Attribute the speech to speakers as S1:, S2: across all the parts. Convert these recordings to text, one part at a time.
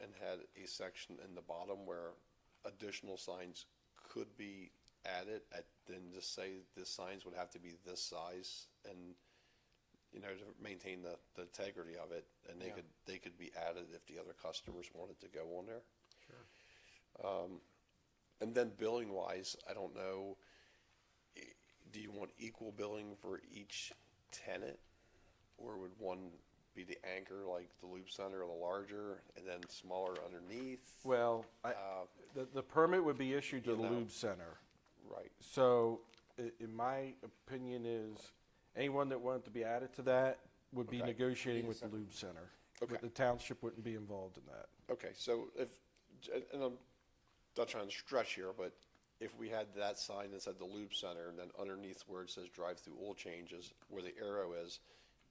S1: and had a section in the bottom where additional signs could be added, at, then just say the signs would have to be this size and, you know, to maintain the, the integrity of it, and they
S2: Yeah.
S1: could, they could be added if the other customers wanted to go on there. Um,
S2: Sure.
S1: And then billing wise, I don't know, i- do you want equal billing for each tenant? Or would one be the anchor, like the Loop Center, the larger, and then smaller underneath?
S2: Well, I, the, the permit would be issued to the
S1: Um, know.
S2: lube center.
S1: Right,
S2: So, i- in my opinion is, anyone that wanted to be added to that would be
S1: Okay.
S2: negotiating with the lube center.
S1: Okay.
S2: But The township wouldn't be involved in that.
S1: okay, so if, and I'm not trying to stretch here, but if we had that sign that said the Loop Center, and then underneath where it says drive-through oil changes, where the arrow is,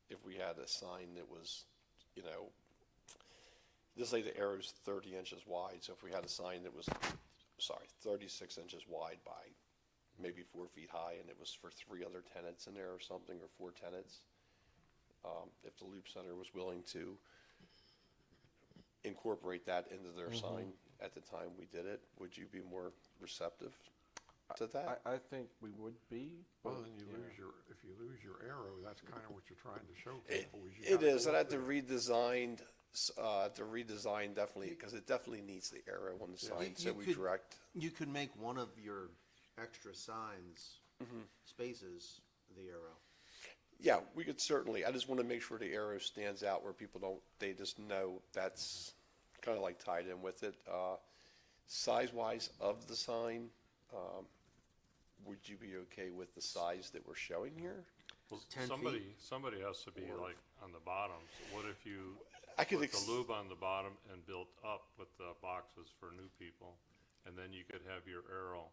S1: if we had a sign that was, you know, Just say the arrow's thirty inches wide, so if we had a sign that was, sorry, thirty-six inches wide by maybe four feet high, and it was for three other tenants in there or something, or four tenants, um, if the Loop Center was willing to incorporate that into their
S3: Mm-hmm.
S1: sign at the time we did it, would you be more receptive to that?
S2: I, I think we would be, but,
S4: Well, then you
S2: yeah.
S4: lose your, if you lose your arrow, that's kind of what you're trying to show
S1: It-
S4: people. you
S1: It
S4: gotta
S1: is,
S4: go
S1: and
S4: up
S1: I had to
S4: there.
S1: redesign, s- uh, to redesign definitely, because it definitely needs the arrow on the sign, so
S3: You
S1: we
S3: could-
S1: direct.
S3: You could make one of your extra signs,
S1: Mm-hmm.
S3: spaces, the arrow.
S1: Yeah, we could certainly, I just want to make sure the arrow stands out where people don't, they just know that's kind of like tied in with it. Uh, size-wise of the sign, um, would you be okay with the size that we're showing here?
S5: Well,
S3: 10 feet?
S5: somebody, somebody has to be like on the bottom. So What if you
S1: I could
S5: put the
S1: ex-
S5: lube on the bottom and built up with the boxes for new people? And then you could have your arrow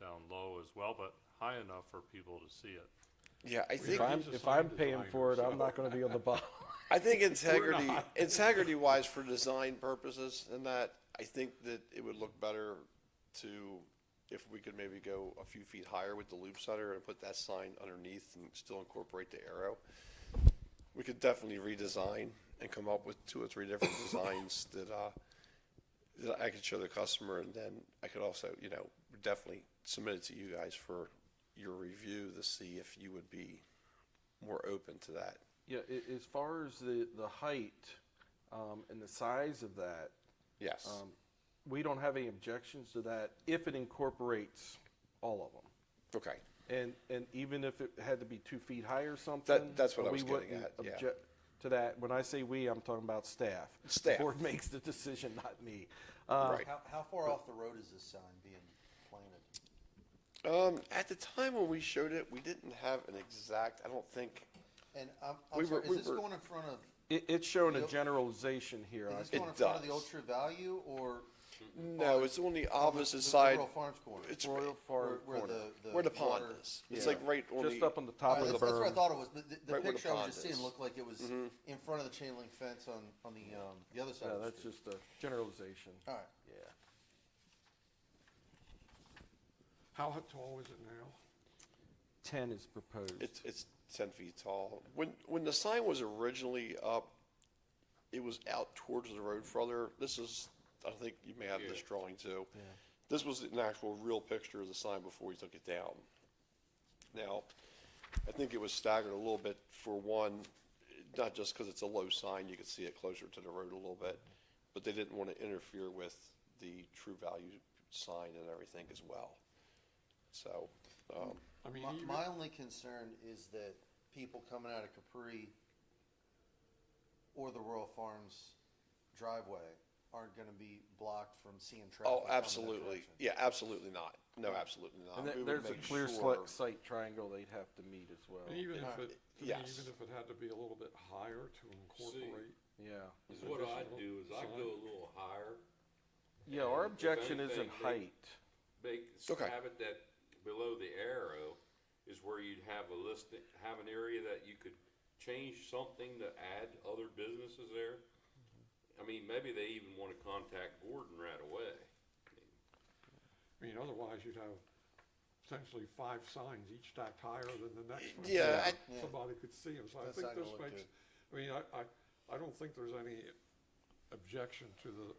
S5: down low as well, but high enough for people to see it.
S1: Yeah, I
S2: If
S1: think,
S2: I'm,
S4: he's a
S2: if
S4: sign
S2: I'm paying
S4: designer,
S2: for it, I'm
S4: so-
S2: not gonna be on the bottom.
S1: I think integrity, integrity-wise for design purposes and that, I think that it would look better to, if we could maybe go a few feet higher with the loop center and put that sign underneath and still incorporate the arrow. we could definitely redesign and come up with two or three different designs that, uh, that I could show the customer and then I could also, you know, definitely submit it to you guys for your review to see if you would be more open to that.
S2: Yeah, a- as far as the, the height, um, and the size of that,
S1: Yes.
S2: um, we don't have any objections to that if it incorporates all of them.
S1: Okay.
S2: And, and even if it had to be two feet high or something?
S1: that's what I
S2: we
S1: was getting
S2: wouldn't
S1: at, yeah.
S2: object To that, when I say we, I'm talking about staff.
S1: Staff.
S2: The board makes the decision, not me. Uh,
S1: Right.
S3: How, how far off the road is this sign being planted?
S1: Um, at the time when we showed it, we didn't have an exact, I don't think,
S3: And
S1: We
S3: I'm, I'm
S1: were-
S3: sorry,
S1: we
S3: is this
S1: were-
S3: going in front of,
S2: It, it's showing a
S3: Yep.
S2: generalization here. I
S3: is this
S1: It
S3: going in front of the
S1: does.
S3: Ultra Value or?
S1: no, it's Uh, on the
S3: the-
S1: opposite
S3: the
S1: side.
S3: Royal Farms corner?
S1: It's
S2: Royal
S1: right-
S2: Farm
S3: Where- where
S2: corner.
S3: the-
S1: Where the pond
S3: water-
S1: is. It's
S2: Yeah.
S1: like right on the.
S2: Just up on the
S3: All
S2: top
S3: right,
S2: of the
S3: that's, that's what I
S2: berm.
S3: thought it was, but the, the
S1: Right where the
S3: picture I
S1: pond
S3: was just seeing
S1: is. Mm-hmm.
S3: looked like it was in front of the chain link fence on, on the, um, the other side
S2: Yeah,
S3: of the
S2: that's
S3: street.
S2: just a generalization.
S3: All right.
S2: Yeah.
S4: How h- tall is it now?
S2: Ten is proposed.
S1: It's, it's ten feet tall. When, when the sign was originally up, it was out towards the road further. This is, I think you may have this drawing too. This was an actual real picture of the sign before he took it down. Now, I think it was staggered a little bit for one, not just because it's a low sign, you could see it closer to the road a little bit. But they didn't want to interfere with the true value sign and everything as well. So, um,
S4: I mean,
S3: My,
S4: even-
S3: my only concern is that people coming out of Capri or the Royal Farms driveway aren't gonna be blocked from seeing traffic.
S1: Oh,
S3: coming that
S1: absolutely.
S3: direction.
S1: Yeah, absolutely not. No, absolutely not.
S2: And
S1: uh, We
S2: there-
S1: would
S2: there's a
S1: make
S2: clear
S1: sure-
S2: sli- sight triangle they'd have to meet as well.
S4: and even if it, to me,
S1: yes.
S4: even if it had to be a little bit higher to incorporate,
S2: Yeah.
S6: Is what I'd do is I'd go a little higher,
S2: Yeah, our
S6: If
S2: objection
S6: anything,
S2: isn't
S6: they-
S2: height.
S6: make,
S1: Okay.
S6: have it that below the arrow is where you'd have a list, have an area that you could change something to add other businesses there. I mean, maybe they even wanna contact Gordon right away.
S4: I mean, otherwise you'd have essentially five signs, each stacked higher than the next one. so
S1: Yeah,
S4: that
S3: I-
S4: Somebody could see them, so I
S3: That's
S4: think
S3: not gonna
S4: this
S3: look
S4: makes, I mean, I, I, I don't think there's any objection to the